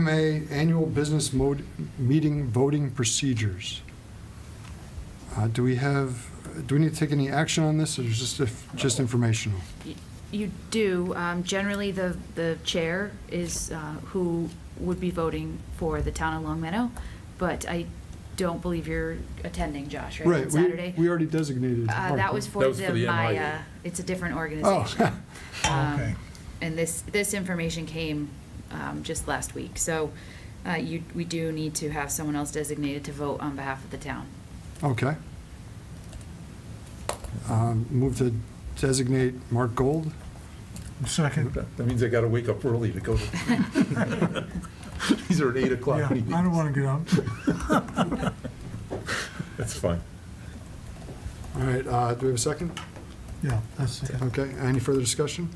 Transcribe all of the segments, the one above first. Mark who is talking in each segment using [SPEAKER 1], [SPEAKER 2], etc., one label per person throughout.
[SPEAKER 1] MMA Annual Business Mode, Meeting Voting Procedures. Uh, Do we have, do we need to take any action on this, or is this just- just informational?
[SPEAKER 2] You do. Um, Generally, the, the chair is uh, who would be voting for the town of Long Meadow, but I don't believe you're attending, Josh, right? on
[SPEAKER 1] Right, we,
[SPEAKER 2] Saturday?
[SPEAKER 1] we already designated.
[SPEAKER 2] Uh, That was for
[SPEAKER 3] That was
[SPEAKER 2] the
[SPEAKER 3] for the MIA.
[SPEAKER 2] Maya, it's a different
[SPEAKER 1] Oh,
[SPEAKER 2] organization. Um,
[SPEAKER 4] Okay.
[SPEAKER 2] And this, this information came um, just last week, so uh, you, we do need to have someone else designated to vote on behalf of the town.
[SPEAKER 1] okay. Um, Move to designate Mark Gold?
[SPEAKER 4] Second.
[SPEAKER 3] That that means I gotta wake up early to go to. These are at eight
[SPEAKER 4] Yeah, I
[SPEAKER 3] o'clock meetings.
[SPEAKER 4] don't want to get up.
[SPEAKER 3] That's fine.
[SPEAKER 1] All right, uh, do we have a second?
[SPEAKER 4] Yeah, that's it.
[SPEAKER 1] Okay, any further discussion?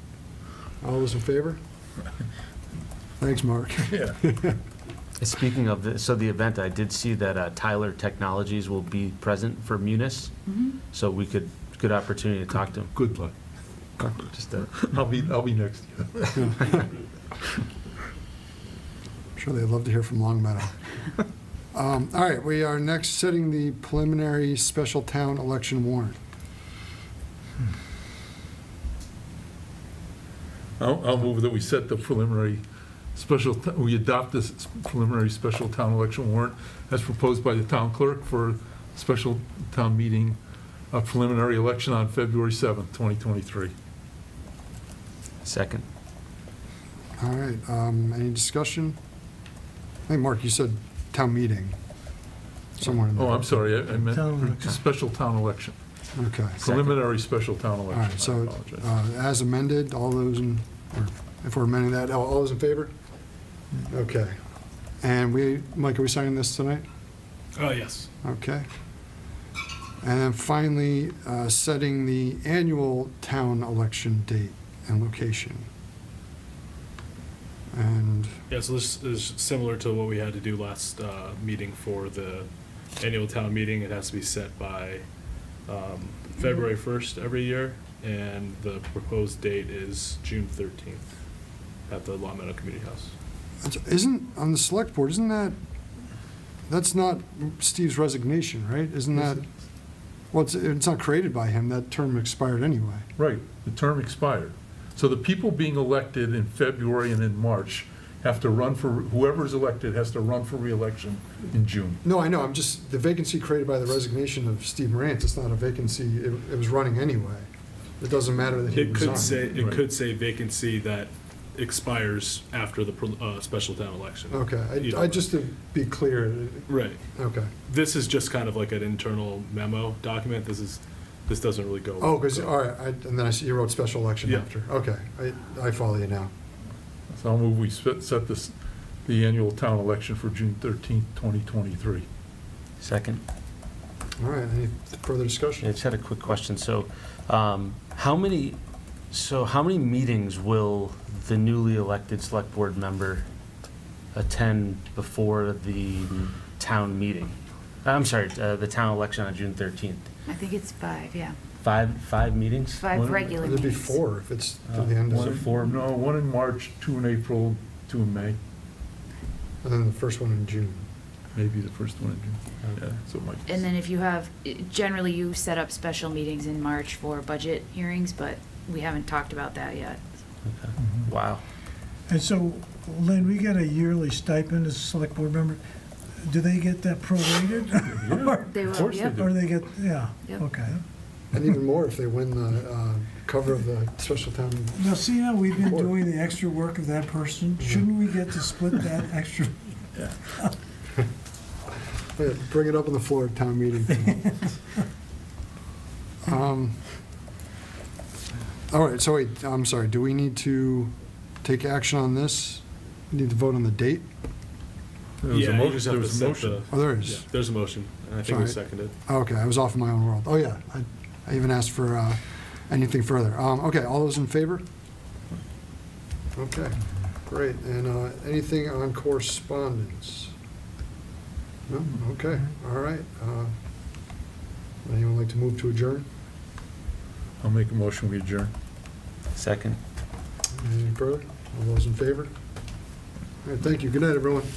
[SPEAKER 1] All those in favor? Thanks, Mark.
[SPEAKER 3] Yeah.
[SPEAKER 5] Speaking of, the- so the event, I did see that uh, Tyler Technologies will be present for Munis,
[SPEAKER 2] Mm-hmm.
[SPEAKER 5] so we could, good opportunity to talk to him.
[SPEAKER 3] Good luck.
[SPEAKER 5] Just a-
[SPEAKER 3] I'll be, I'll be next to you.
[SPEAKER 1] I'm Sure, they'd love to hear from Long Meadow. Um, All right, we are next setting the preliminary special town election warrant.
[SPEAKER 3] I'll, I'll move that we set the preliminary special, t- we adopt this preliminary special town election warrant as proposed by the town clerk for special town meeting, a preliminary election on February 7th, 2023.
[SPEAKER 5] Second.
[SPEAKER 1] All right, um, any discussion? Hey, Mark, you said town meeting somewhere in there.
[SPEAKER 3] Oh, I'm sorry, I I
[SPEAKER 4] Town
[SPEAKER 3] meant
[SPEAKER 4] election.
[SPEAKER 3] special town election,
[SPEAKER 1] Okay.
[SPEAKER 3] preliminary special town
[SPEAKER 1] All right,
[SPEAKER 3] election. I
[SPEAKER 1] so
[SPEAKER 3] apologize.
[SPEAKER 1] uh, as amended, all those in, or if we're amending that, all all those in favor?
[SPEAKER 3] Hmm.
[SPEAKER 1] Okay. And we, Mike, are we signing this tonight?
[SPEAKER 6] Oh, yes.
[SPEAKER 1] Okay. And then finally, uh, setting the annual town election date and location. And,
[SPEAKER 6] Yeah, so this is similar to what we had to do last uh, meeting for the annual town meeting. It has to be set by um, February 1st every year, and the proposed date is June 13th at the Long Meadow Community House.
[SPEAKER 1] isn't, on the select board, isn't that, that's not Steve's resignation, right? Isn't that, well, it's, it's not created by him, that term expired anyway.
[SPEAKER 3] Right, the term expired. So the people being elected in February and in March have to run for, whoever's elected has to run for reelection in June.
[SPEAKER 1] No, I know, I'm just, the vacancy created by the resignation of Steve Morantz, it's not a vacancy, it, it was running anyway. It doesn't matter that he
[SPEAKER 6] It
[SPEAKER 1] resigned.
[SPEAKER 6] could say, it
[SPEAKER 3] Right.
[SPEAKER 6] could say vacancy that expires after the pro- uh, special town election.
[SPEAKER 1] Okay,
[SPEAKER 6] You
[SPEAKER 1] I, I
[SPEAKER 6] know.
[SPEAKER 1] just to be clear,
[SPEAKER 6] Right.
[SPEAKER 1] okay.
[SPEAKER 6] This is just kind of like an internal memo document. This is, this doesn't really go.
[SPEAKER 1] Oh, because, all right, I- and then I see you wrote special election
[SPEAKER 6] Yeah.
[SPEAKER 1] after. Okay, I, I follow you now.
[SPEAKER 3] So I'll move we set set this, the annual town election for June thirteenth, twenty twenty-three.
[SPEAKER 5] Second.
[SPEAKER 1] All right, any further
[SPEAKER 5] I
[SPEAKER 1] discussion?
[SPEAKER 5] just had a quick question. So um, how many, so how many meetings will the newly elected select board member attend before the town meeting? I'm sorry, uh, the town election on June 13th?
[SPEAKER 2] I think it's five, yeah.
[SPEAKER 5] Five, five meetings?
[SPEAKER 2] Five
[SPEAKER 5] One-
[SPEAKER 2] regular
[SPEAKER 1] It'd be
[SPEAKER 2] meetings.
[SPEAKER 1] four if it's to the end
[SPEAKER 3] Uh, One in-
[SPEAKER 1] of,
[SPEAKER 5] four?
[SPEAKER 3] No, one in March, two in April, two in May,
[SPEAKER 1] and then the first one in June.
[SPEAKER 3] maybe the first one in June. Yeah, so it might be-
[SPEAKER 2] And then if you have, generally you set up special meetings in March for budget hearings, but we haven't talked about that yet.
[SPEAKER 5] Wow.
[SPEAKER 4] And so, Lynn, we get a yearly stipend as a select board member. Do they get that prorated? Or-
[SPEAKER 2] They
[SPEAKER 3] Of
[SPEAKER 2] will,
[SPEAKER 3] course they
[SPEAKER 2] yep.
[SPEAKER 3] do.
[SPEAKER 4] Or they get, yeah,
[SPEAKER 2] Yep.
[SPEAKER 4] okay.
[SPEAKER 1] And even more if they win the, uh, cover of the special town.
[SPEAKER 4] Now, see how we've been
[SPEAKER 1] Or-
[SPEAKER 4] doing the extra work of that person? Shouldn't we get to split that extra?
[SPEAKER 1] Yeah, Bring it up on the floor at town meeting. Um, All right, so wait, I'm sorry, do we need to take action on this? Need to vote on the date?
[SPEAKER 3] There was a
[SPEAKER 6] Yeah,
[SPEAKER 3] mo-
[SPEAKER 6] you just have
[SPEAKER 3] there
[SPEAKER 6] to
[SPEAKER 3] was a
[SPEAKER 6] set
[SPEAKER 3] motion.
[SPEAKER 6] the-
[SPEAKER 1] Oh, there
[SPEAKER 6] Yeah,
[SPEAKER 1] is.
[SPEAKER 6] There's a motion, and I think we
[SPEAKER 1] Sorry.
[SPEAKER 6] seconded.
[SPEAKER 1] Oh, Okay, I was off in my own world. Oh, yeah, I, I even asked for uh, anything further. Um, okay, all those in favor? Okay, great. And uh, anything on correspondence? No? Okay, all right. Uh, would anyone like to move to adjourn?
[SPEAKER 3] I'll make a motion, we adjourn.
[SPEAKER 5] Second.
[SPEAKER 1] Any further? All those in favor? All right, thank you. Good night, everyone.